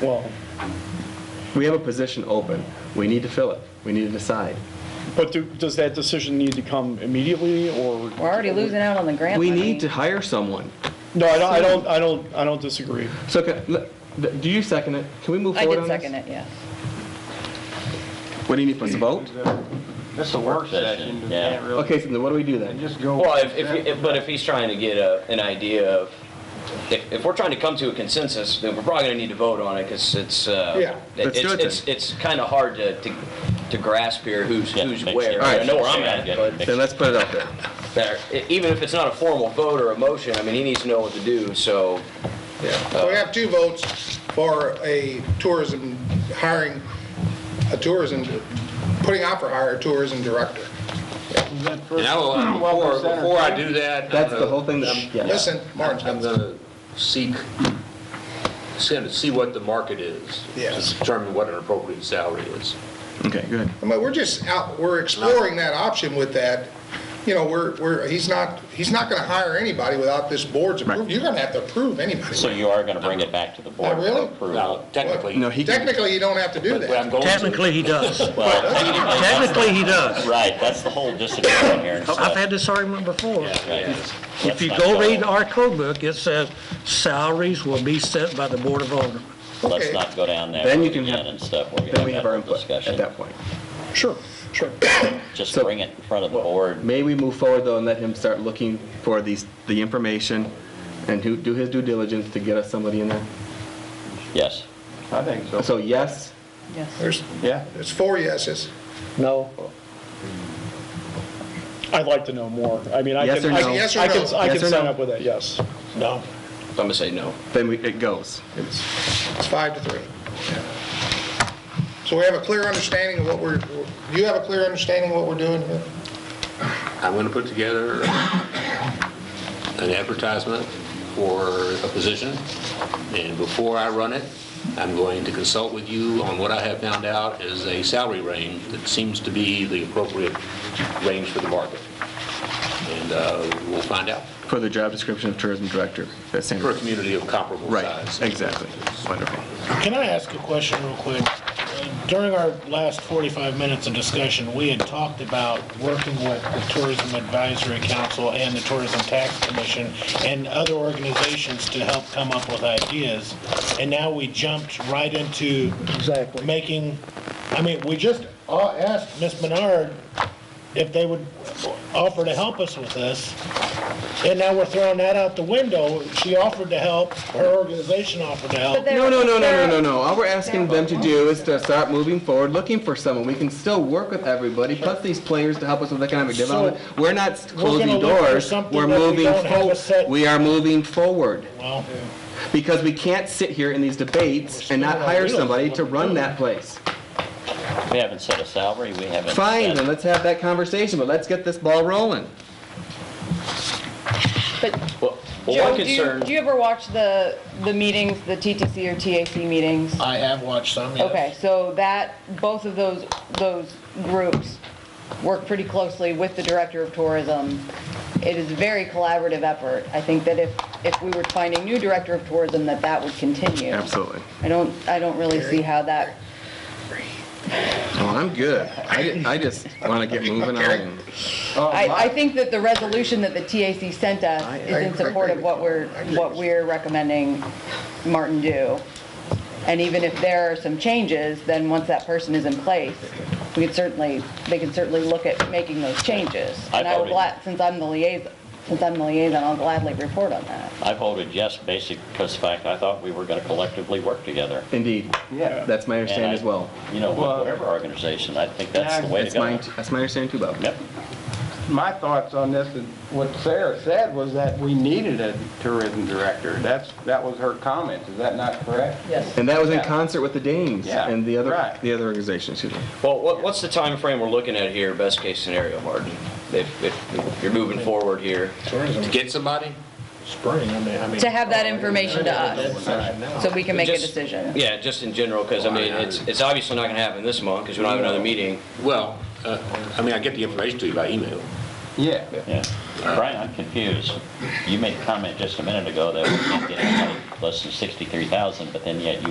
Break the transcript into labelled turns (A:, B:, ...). A: Well,
B: We have a position open. We need to fill it. We need to decide.
A: but do- does that decision need to come immediately, or?
C: We're already losing out on the grant
B: We
C: money.
B: need to hire someone.
A: No, I don't, I don't, I don't, I don't disagree.
B: So, can- l- do you second it? Can we move
C: I
B: forward
C: did
B: on this?
C: second it, yeah.
B: What do you need, us to vote?
D: It's a work session, you
E: yeah.
D: can't really,
B: Okay, so then what do we do
D: and
B: then?
D: just go.
E: Well, if, if, if- but if he's trying to get a, an idea of, if, if we're trying to come to a consensus, then we're probably gonna need to vote on it, because it's, uh.
A: Yeah.
E: it-
B: Let's do
E: it's-
B: it then.
E: It's, it's kinda hard to, to, to grasp here who's,
F: Yeah,
E: who's
F: makes
E: where.
F: sense.
E: I know where I'm
F: Alright.
E: at, but
B: Then let's put it out there.
E: there- e- even if it's not a formal vote or a motion, I mean, he needs to know what to do, so.
G: So we have two votes for a tourism, hiring a tourism, putting out for hire a tourism director.
H: And I will, before, before I do that. I'm
B: That's the
H: gonna-
B: whole thing that, yeah.
G: Listen, Martin's
H: I'm
G: got
H: gonna seek, see- to see what the market is.
G: Yes.
H: To determine what an appropriate salary is.
B: Okay, good.
G: I mean, we're just out, we're exploring that option with that. You know, we're, we're, he's not, he's not gonna hire anybody without this board's approval. You're gonna have to approve
F: So
G: anybody.
F: you are gonna bring it back to the board? for
G: Oh, really?
F: approval?
H: Now, technically.
B: No, he can,
G: Technically, you don't have to do
H: but I'm
G: that.
H: going to-
I: Technically, he does.
F: Well,
I: Technically, he does.
F: right, that's the whole disagreement here. so-
I: I've had this argument before.
F: Right.
I: If you
F: Let's not
I: go read our code book, it says salaries will be set by the Board of Aldermen.
F: Let's
G: Okay.
F: not go down there.
B: Then you can
F: again
B: have-
F: And stuff, we're
B: then we
F: gonna
B: have
F: have
B: our
F: a
B: input at
F: discussion.
B: that point.
A: Sure, sure.
F: Just
B: So-
F: bring it in front of the board.
B: May we move forward though and let him start looking for these, the information and who, do his due diligence to get us somebody in there?
F: Yes.
D: I think so.
B: So yes,
C: Yes.
G: There's,
D: Yeah.
G: there's four yeses.
B: no,
A: I'd like to know more. I mean, I
B: Yes
A: can,
B: or
A: I
B: no?
G: Yes
A: can,
G: or
A: I can,
G: no?
A: I
B: Yes
A: can
B: or
A: sign
B: no?
A: up with that, yes. No.
E: I'm gonna say no.
B: then we, it goes.
G: It's it's five to three. So we have a clear understanding of what we're, do you have a clear understanding of what we're doing here?
H: I'm gonna put together an advertisement for a position, and before I run it, I'm going to consult with you on what I have found out is a salary range that seems to be the appropriate range for the market. And uh, we'll find out
B: For the job description of tourism director at Sandra.
H: for a community of comparable size.
B: Right, exactly. Wonderful.
J: Can I ask a question real quick? Uh, During our last 45 minutes of discussion, we had talked about working with the Tourism Advisory Council and the Tourism Tax Commission and other organizations to help come up with ideas, and now we jumped right into
A: Exactly.
J: making, I mean, we just a- asked Ms. Menard if they would offer to help us with this, and now we're throwing that out the window. She offered to help, her organization offered to help.
C: But there-
B: No, no, no, no, no,
C: there-
B: no, no. All we're asking them to do is to start moving forward, looking for someone. We can still work with everybody, plus these players to help us with economic
J: So,
B: development. We're not closing
J: look for
B: doors.
J: something
B: We're
J: that we
B: moving
J: don't have a
B: forward.
J: set-
B: We are moving forward.
J: Well,
B: Because we can't sit here in these debates and not hire somebody to run that place.
F: We haven't set a salary, we haven't.
B: Fine,
F: set-
B: then let's have that conversation, but let's get this ball rolling.
C: But
E: Well, well,
C: Joe,
E: one
C: do you,
E: concern,
C: do you ever watch the, the meetings, the TTC or TAC meetings?
J: I have watched some, yes.
C: Okay, so that, both of those, those groups work pretty closely with the Director of Tourism. It is a very collaborative effort. I think that if, if we were finding new Director of Tourism, that that would continue.
B: Absolutely.
C: I don't, I don't really see how that,
B: Well, Oh, I'm good. I di- I just want to get moving on.
C: I, I think that the resolution that the TAC sent us
B: I-
C: is in
G: I-
C: support of what we're, what we're recommending Martin do. And even if there are some changes, then once that person is in place, we could certainly, they can certainly look at making those changes.
F: I
C: And I would,
F: voted-
C: gla- since I'm the liaison, since I'm the liaison, I'll gladly report on that.
F: I voted yes, basically, because the fact I thought we were gonna collectively work together.
B: Indeed.
D: Yeah.
B: That's my understanding
F: And I-
B: as well.
F: You know,
D: Well-
F: whatever organization, I think that's the way to
B: That's
F: go.
B: my, that's my understanding too, Bob.
F: Yep.
D: My thoughts on this, and what Sarah said was that we needed a tourism director. That's, that was her comment, is that not correct?
C: Yes.
B: And that was in
D: Yeah.
B: concert with the Danes
D: Yeah,
B: and the other,
D: right.
B: the other organization, excuse me.
E: well, what, what's the time frame we're looking at here, best case scenario, Martin? If, if you're moving forward here.
H: To get somebody?
J: spring, I mean, I mean.
C: To have that information to us, so we can make a
E: Just-
C: decision.
E: Yeah, just in general, because I mean, it's, it's obviously not gonna happen this month, because we don't have another meeting.
H: Well, uh, I mean, I get the information to you by email.
D: Yeah.
F: Yeah. Brian, I'm confused. You made a comment just a minute ago that we can't get anybody less than 63,000, but then yet you